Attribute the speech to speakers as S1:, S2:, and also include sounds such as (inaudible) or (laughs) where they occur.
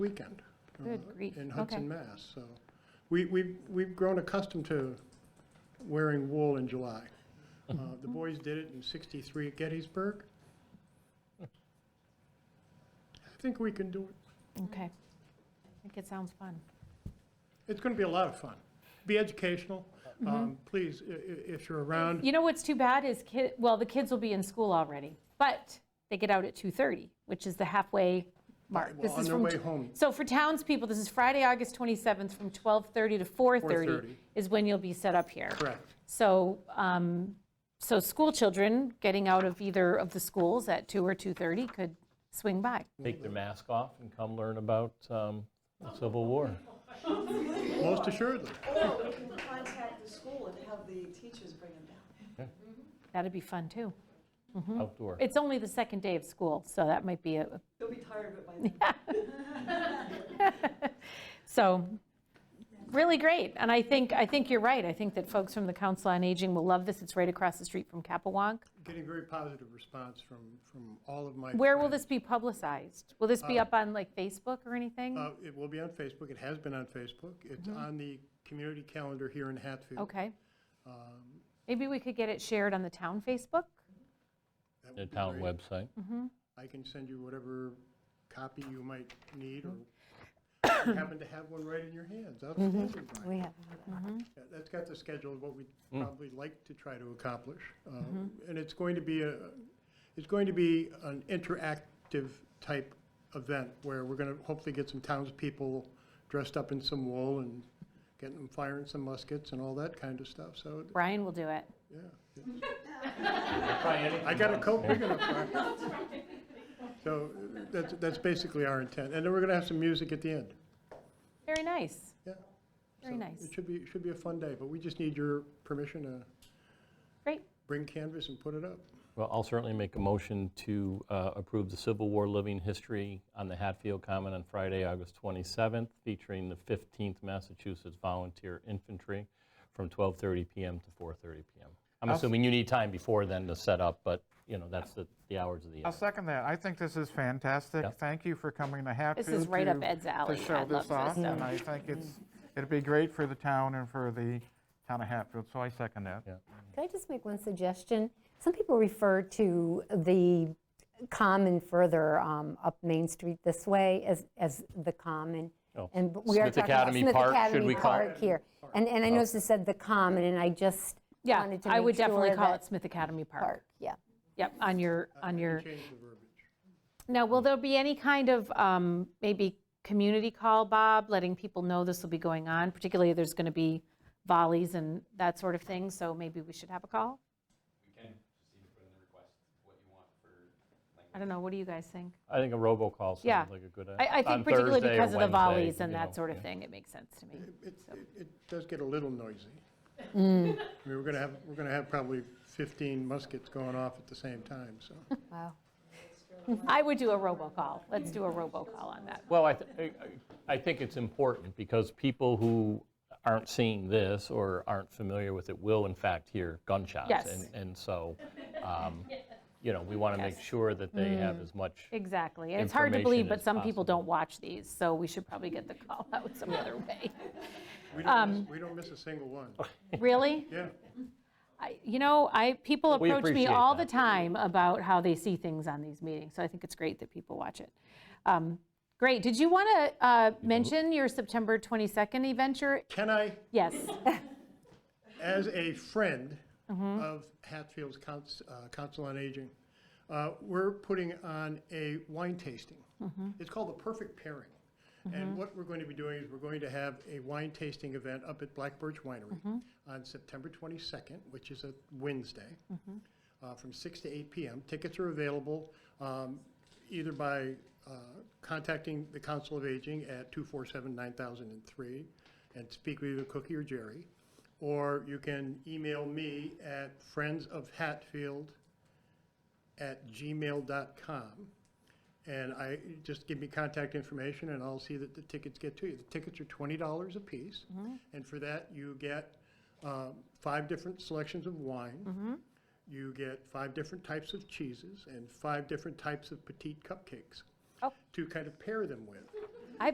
S1: weekend. uh,
S2: Good grief,
S1: In
S2: okay.
S1: Hudson, Mass, so. We, we've, we've grown accustomed to wearing wool in July.
S2: (laughs)
S1: Uh, The boys did it in 63 at Gettysburg. I think we can do it.
S2: Okay. I think it sounds fun.
S1: It's going to be a lot of fun. Be educational.
S2: Mm-hmm.
S1: Um, Please, i- i- if you're around,
S2: You know what's too bad is kid, well, the kids will be in school already, but they get out at 2:30, which is the halfway mark.
S1: well,
S2: This
S1: on
S2: is
S1: their
S2: from-
S1: way home.
S2: So for townspeople, this is Friday, August 27th, from 12:30 to 4:30
S1: 4:30.
S2: is when you'll be set up here.
S1: Correct.
S2: So, um, so school children getting out of either of the schools at 2 or 2:30 could swing by.
S3: Take their mask off and come learn about um, the Civil War.
S1: Most assuredly.
S4: Or we can contact the school and have the teachers bring them down.
S2: That'd be fun, too. Mm-hmm.
S3: Outdoor.
S2: It's only the second day of school, so that might be a,
S4: They'll be tired of it by then.
S2: So, really great, and I think, I think you're right, I think that folks from the Council on Aging will love this, it's right across the street from Capewalk.
S1: Getting very positive response from, from all of my.
S2: Where will
S1: friends.
S2: this be publicized? Will this be up on like Facebook or anything?
S1: Uh, It will be on Facebook. It has been on Facebook. It's
S2: Mm-hmm.
S1: on the community calendar here in Hatfield.
S2: Okay.
S1: um,
S2: Maybe we could get it shared on the town Facebook?
S1: That
S3: The
S1: would be
S3: town
S1: great.
S3: website.
S1: I can send you whatever copy you might need, or
S5: (coughs)
S1: you happen to have one right in your hands. Outstanding, Brian.
S5: Mm-hmm. We have, mm-hmm.
S1: Yeah, That's got the schedule of what we'd
S3: Mm.
S1: probably like to try to accomplish. Uh,
S5: Mm-hmm.
S1: And it's going to be a, it's going to be an interactive type event where we're going to hopefully get some townspeople dressed up in some wool and getting them firing some muskets and all that kind of stuff, so,
S2: Brian will do it.
S1: yeah. yeah. I got a coat big enough. Brian. So uh, that's, that's basically our intent. And then we're going to have some music at the end.
S2: Very nice,
S1: Yeah.
S2: Very
S1: So
S2: nice.
S1: It should be, it should be a fun day, but we just need your permission to
S2: great,
S1: bring canvas and put it up.
S3: Well, I'll certainly make a motion to uh, approve the Civil War Living History on the Hatfield Common on Friday, August 27th, featuring the 15th Massachusetts Volunteer Infantry from 12:30 PM to 4:30 PM. I'm assuming you need time before then to set up, but, you know, that's the the hours of the
S6: I'll
S3: event.
S6: second that. I think this is fantastic. Thank you for coming to Hatfield.
S2: is right up
S6: to-
S2: Ed's alley.
S6: To
S2: I
S6: show
S2: love
S6: this
S2: this
S6: off,
S2: stuff.
S6: and I think it's, it'd be great for the town and for the town of Hatfield, so I second that.
S5: could I just make one suggestion? Some people refer to the common further um, up Main Street this way as, as the common.
S3: Oh,
S5: And but we are
S3: Smith
S5: talking about
S3: Academy
S5: Smith
S3: Park, should we
S5: Academy
S3: call it? Oh.
S5: Park here. And, and I noticed it said the common, and I just
S2: Yeah,
S5: wanted to make sure
S2: I would definitely call
S5: that-
S2: it Smith Academy Park.
S5: Park, yeah.
S2: Yep, on your, on your.
S1: Uh, Change the verbiage.
S2: Now, will there be any kind of um, maybe community call, Bob, letting people know this will be going on? Particularly, there's going to be volleys and that sort of thing, so maybe we should have a call? We can, just put in the request, what you want for.
S3: I think a robocall
S2: Yeah.
S3: sounds like a good idea.
S2: I don't know, what do you guys think? I- I
S3: On
S2: think particularly
S3: Thursday or
S2: because of the
S3: Wednesday,
S2: volleys and
S3: you know,
S2: that sort
S3: yeah.
S2: of thing, it makes sense to me.
S1: It, it- it does get a little
S2: (laughs)
S1: noisy.
S2: Mm.
S1: I mean, we're going to have, we're going to have probably 15 muskets going off at the same time, so.
S2: Um,
S5: Wow.
S2: I would do a robocall, let's do a robocall on that.
S3: Well, I, th- I I think it's important because people who aren't seeing this or aren't familiar with it will in fact hear gunshots.
S2: Yes.
S3: And, and so, um, you know, we want to make sure that they have as much,
S2: Exactly, and it's hard to believe,
S3: Information
S2: but
S3: is
S2: some people
S3: possible.
S2: don't watch these, so we should probably get the call (laughs) out some other way.
S1: We don't, miss- we don't miss a single one.
S2: Really?
S1: Yeah.
S2: I- You know, I, people
S3: We
S2: approach me
S3: appreciate
S2: all the
S3: that.
S2: time about how they see things on these meetings, so I think it's great that people watch it. Um, Great, did you want to mention your September 22nd adventure?
S1: Can I,
S2: Yes,
S1: as a friend of Hatfield's Couns- uh, Council on Aging, uh, we're putting on a wine tasting. It's called The Perfect Pairing. And what we're going to be doing is we're going to have a wine tasting event up at Black Birch Winery on September 22nd, which is a Wednesday, uh, from 6 to 8 p.m. Tickets are available um, either by uh, contacting the Council of Aging at 247-9003 and speak with either Cookie or Jerry, or you can email me at friendsofhatfield@gmail.com. And I, just give me contact information, and I'll see that the tickets get to you. The tickets are twenty dollars apiece, and for that, you get um, five different selections of wine. You get five different types of cheeses and five different types of petite cupcakes
S2: Oh.
S1: to kind of pair them with.